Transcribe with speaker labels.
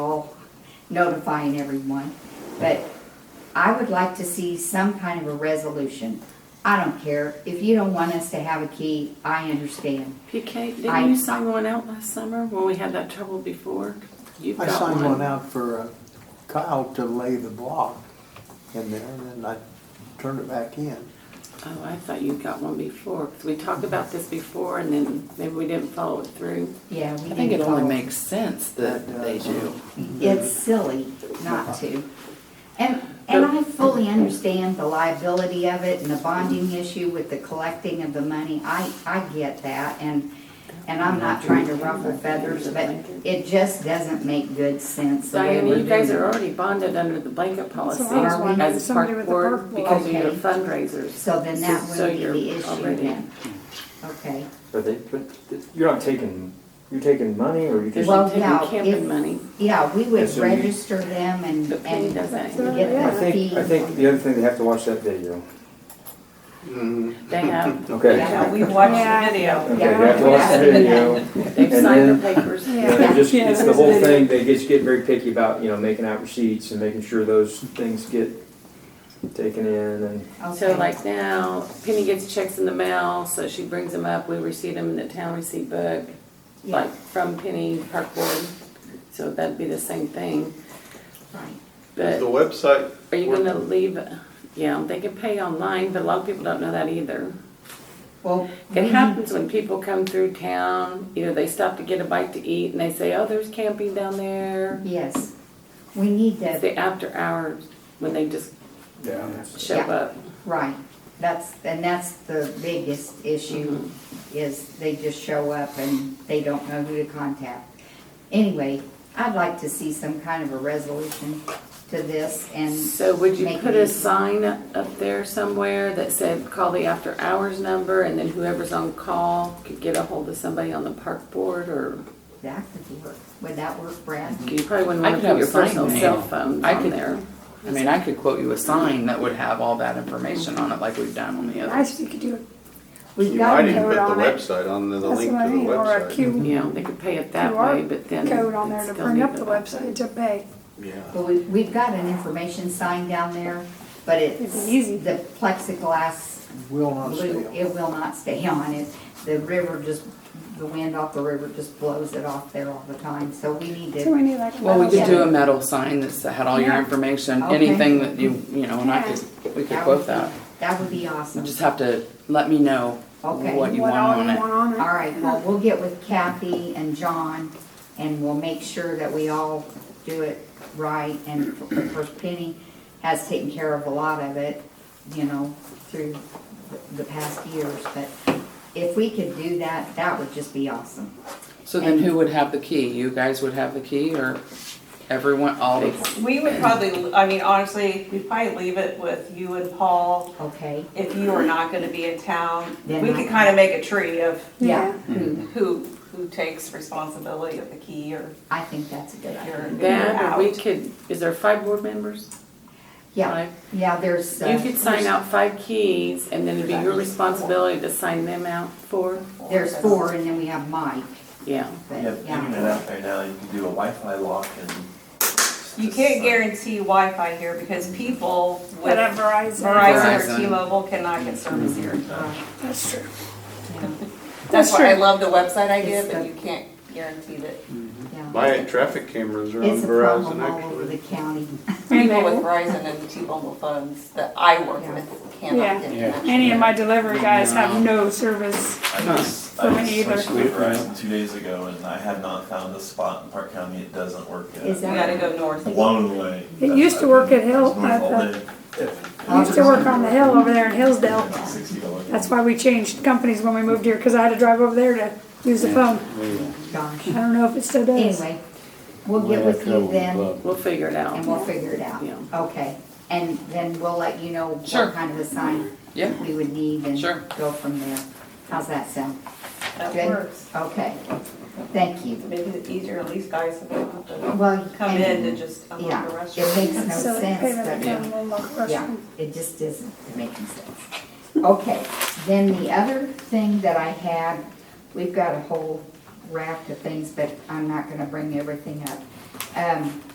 Speaker 1: notifying everyone, but I would like to see some kind of a resolution. I don't care, if you don't want us to have a key, I understand.
Speaker 2: PK,
Speaker 1: I-
Speaker 2: didn't you sign one out last summer when we had that trouble before? You've
Speaker 3: I
Speaker 2: got
Speaker 3: signed one out for uh, Kyle to lay the block in there, and then I turned it back in.
Speaker 2: Oh, I thought you got one before, 'cause we talked about this before and then maybe we didn't follow it through.
Speaker 1: Yeah, we
Speaker 4: I think it
Speaker 1: didn't
Speaker 4: only
Speaker 1: follow.
Speaker 4: makes sense that
Speaker 5: uh,
Speaker 4: they do.
Speaker 1: It's silly not to. And, and I fully understand the liability of it and the bonding issue with the collecting of the money. I, I get that and, and I'm not trying to ruffle feathers, but it just doesn't make good sense. the way
Speaker 2: Diana,
Speaker 1: we're
Speaker 2: you guys
Speaker 1: doing it.
Speaker 2: are already bonded under the blanket policy.
Speaker 5: So I
Speaker 1: was wondering,
Speaker 2: As a
Speaker 5: somebody
Speaker 2: park
Speaker 5: with a
Speaker 2: board
Speaker 5: purple-
Speaker 2: because of your
Speaker 1: Okay.
Speaker 2: fundraisers.
Speaker 1: So then that
Speaker 2: So
Speaker 1: would be
Speaker 2: you're
Speaker 1: the issue
Speaker 2: already-
Speaker 1: then. Okay.
Speaker 6: Are they, but you're not taking, you're taking money or you're
Speaker 2: They're
Speaker 6: just,
Speaker 1: Well,
Speaker 2: taking
Speaker 1: yeah, if-
Speaker 2: camping money.
Speaker 1: Yeah, we
Speaker 6: Yeah,
Speaker 1: would
Speaker 6: so you-
Speaker 1: register them and,
Speaker 2: The penny
Speaker 1: and
Speaker 2: doesn't.
Speaker 5: So-
Speaker 6: I
Speaker 1: get the
Speaker 6: think,
Speaker 1: fee.
Speaker 6: I think the other thing, they have to watch that video.
Speaker 2: They have,
Speaker 6: Okay.
Speaker 1: Yeah.
Speaker 7: We watched the video.
Speaker 6: Okay, they have to watch the video.
Speaker 2: they've
Speaker 6: And
Speaker 2: signed
Speaker 6: then-
Speaker 2: their papers.
Speaker 5: Yeah.
Speaker 6: And they're just, it's the whole thing, they just get very picky about, you know, making out receipts and making sure those things get taken in and,
Speaker 2: So
Speaker 1: Okay.
Speaker 2: like now, Penny gets checks in the mail, so she brings them up, we receive them in the town receipt book,
Speaker 1: Yeah.
Speaker 2: like from Penny Park Board. So that'd be the same thing,
Speaker 1: Right.
Speaker 8: Is the
Speaker 2: but
Speaker 8: website,
Speaker 2: are you gonna leave, yeah, they can pay online, but a lot of people don't know that either.
Speaker 1: Well, we
Speaker 2: It
Speaker 1: need
Speaker 2: happens when people come through town, you know, they stop to get a bite to eat and they say, oh, there's camping down there.
Speaker 1: Yes, we need
Speaker 2: It's
Speaker 1: that,
Speaker 2: the after hours when they just
Speaker 6: yeah.
Speaker 2: show
Speaker 1: Yeah.
Speaker 2: up.
Speaker 1: right, that's, and that's the biggest issue,
Speaker 2: Mm-hmm.
Speaker 1: is they just show up and they don't know who to contact. Anyway, I'd like to see some kind of a resolution to this, and,
Speaker 2: So would you
Speaker 1: Make
Speaker 2: put
Speaker 1: it
Speaker 2: a
Speaker 1: easy.
Speaker 2: sign up there somewhere that said, call the after hours number, and then whoever's on call could get a hold of somebody on the park board, or
Speaker 1: that could work, would that work, Brad?
Speaker 2: you probably wouldn't
Speaker 4: I
Speaker 2: wanna
Speaker 4: could have
Speaker 2: put your
Speaker 4: a sign
Speaker 2: personal
Speaker 4: made.
Speaker 2: cell phones
Speaker 4: I
Speaker 2: on
Speaker 4: could-
Speaker 2: there.
Speaker 4: I mean, I could quote you a sign that would have all that information on it like we've done on the
Speaker 5: I
Speaker 4: others.
Speaker 5: think you could do
Speaker 1: We've
Speaker 8: you
Speaker 1: got
Speaker 8: might
Speaker 1: to
Speaker 8: even
Speaker 5: know
Speaker 8: put
Speaker 5: it
Speaker 8: the
Speaker 5: on it.
Speaker 8: website on there,
Speaker 5: it,
Speaker 8: the
Speaker 5: that's
Speaker 8: link
Speaker 5: what
Speaker 8: to
Speaker 5: I
Speaker 8: the
Speaker 5: mean, E or a
Speaker 8: website.
Speaker 5: Q
Speaker 4: Mm-hmm.
Speaker 2: You know, they could pay it Mm-hmm. that
Speaker 5: QR
Speaker 2: way, but then.
Speaker 5: code on there
Speaker 2: it'd
Speaker 5: to
Speaker 2: still
Speaker 5: bring
Speaker 2: need
Speaker 5: up the website to pay.
Speaker 8: Yeah.
Speaker 1: Well, we, we've got an information sign down there, but it's,
Speaker 5: It'd be easy.
Speaker 1: the plexiglass,
Speaker 3: Will not stay
Speaker 1: blew-
Speaker 3: on.
Speaker 1: it will not stay on it. The river just, the wind off the river just blows it off there all the time, so we need
Speaker 5: So we
Speaker 1: to,
Speaker 5: need like a
Speaker 4: Well, we
Speaker 5: metal
Speaker 4: could do a
Speaker 5: sign.
Speaker 4: metal sign that's had all your
Speaker 5: Oh, Yeah.
Speaker 4: information,
Speaker 1: Okay.
Speaker 4: anything that you, you know, and I could, we could
Speaker 1: Yeah.
Speaker 4: quote that.
Speaker 1: that would be
Speaker 4: You
Speaker 1: awesome.
Speaker 4: just have to let me know
Speaker 1: Okay.
Speaker 4: what you
Speaker 5: What
Speaker 4: want
Speaker 5: all
Speaker 4: on
Speaker 5: you
Speaker 4: it.
Speaker 5: want on
Speaker 1: All
Speaker 5: it.
Speaker 1: right, well, we'll get with Kathy and John, and we'll make sure that we all do it right, and of course Penny has taken care of a lot of it, you know, through the- the past years, but if we could do that, that would just be awesome.
Speaker 4: So then who would have the key? You guys would have the key or everyone, all of,
Speaker 7: We would probably, I mean, honestly, we'd probably leave it with you and Paul.
Speaker 1: Okay,
Speaker 7: If you are not gonna be in town,
Speaker 1: Then
Speaker 7: we
Speaker 1: I-
Speaker 7: could kind of make a tree of
Speaker 1: yeah,
Speaker 7: who,
Speaker 1: Hmm.
Speaker 7: who takes responsibility of the key or
Speaker 1: I think that's a good
Speaker 7: your.
Speaker 1: idea.
Speaker 2: That, or we
Speaker 7: out.
Speaker 2: could, is there five board members?
Speaker 1: Yeah,
Speaker 2: Five?
Speaker 1: yeah, there's. uh,
Speaker 2: You could sign out five keys, and then it'd be your responsibility to sign them out for,
Speaker 1: There's four, and then we have Mike,
Speaker 2: yeah.
Speaker 1: but
Speaker 9: Yeah, figuring it
Speaker 1: yeah,
Speaker 9: out right now, you can do a Wi-Fi lock and.
Speaker 7: You can't guarantee Wi-Fi here because people with
Speaker 5: But a Verizon,
Speaker 7: Verizon
Speaker 4: Verizon.
Speaker 7: or T-Mobile cannot get service
Speaker 1: Mm-hmm.
Speaker 7: here.
Speaker 1: Uh,
Speaker 5: that's true.
Speaker 1: yeah,
Speaker 7: That's
Speaker 5: That's
Speaker 7: why I
Speaker 5: true.
Speaker 7: love the website idea,
Speaker 1: It's
Speaker 7: but
Speaker 1: the-
Speaker 7: you can't guarantee that
Speaker 1: yeah.
Speaker 8: My traffic cameras are on
Speaker 1: It's a problem
Speaker 8: Verizon,
Speaker 1: all over the
Speaker 8: actually.
Speaker 1: county.
Speaker 7: people with Verizon and T-Mobile phones that I work
Speaker 1: Yeah.
Speaker 7: with
Speaker 5: Yeah.
Speaker 7: cannot get connection.
Speaker 5: Any of my delivery guys have no service.
Speaker 9: I just,
Speaker 5: For
Speaker 9: I
Speaker 5: me
Speaker 9: just
Speaker 5: either.
Speaker 9: switched to Verizon two days ago and I have not found a spot in Park County, it doesn't work yet.
Speaker 1: Is
Speaker 7: You gotta go north.
Speaker 9: Blown away.
Speaker 5: It used to work at Hill-
Speaker 9: It's north all
Speaker 5: at
Speaker 9: day.
Speaker 5: I
Speaker 1: Oh,
Speaker 5: used to work on the hill over there in Hillsdale.
Speaker 9: Sixty dollars.
Speaker 5: That's why we changed companies when we moved here, because I had to drive over there to use the phone.
Speaker 1: Gosh.
Speaker 5: I don't know if it still does.
Speaker 1: Anyway, we'll get with you then
Speaker 2: We'll figure it out.
Speaker 1: and we'll figure it out.
Speaker 2: Yeah.
Speaker 1: Okay, and then we'll let you know
Speaker 4: Sure.
Speaker 1: what kind of a sign
Speaker 4: yeah,
Speaker 1: we would need and
Speaker 4: Sure.
Speaker 1: go from there. How's that sound?
Speaker 7: That
Speaker 1: Good?
Speaker 7: works.
Speaker 1: Okay, thank you.
Speaker 7: Make it easier, at least guys that don't have to
Speaker 1: Well,
Speaker 7: come in
Speaker 1: and-
Speaker 7: and just unlock
Speaker 1: yeah,
Speaker 7: the
Speaker 1: it
Speaker 7: restroom.
Speaker 1: makes no
Speaker 5: So they pay by the
Speaker 1: sense,
Speaker 5: time, we'll lock the
Speaker 1: but, yeah,
Speaker 5: restroom.
Speaker 1: it just isn't making sense. Okay, then the other thing that I had, we've got a whole raft of things, but I'm not gonna bring everything up. Um,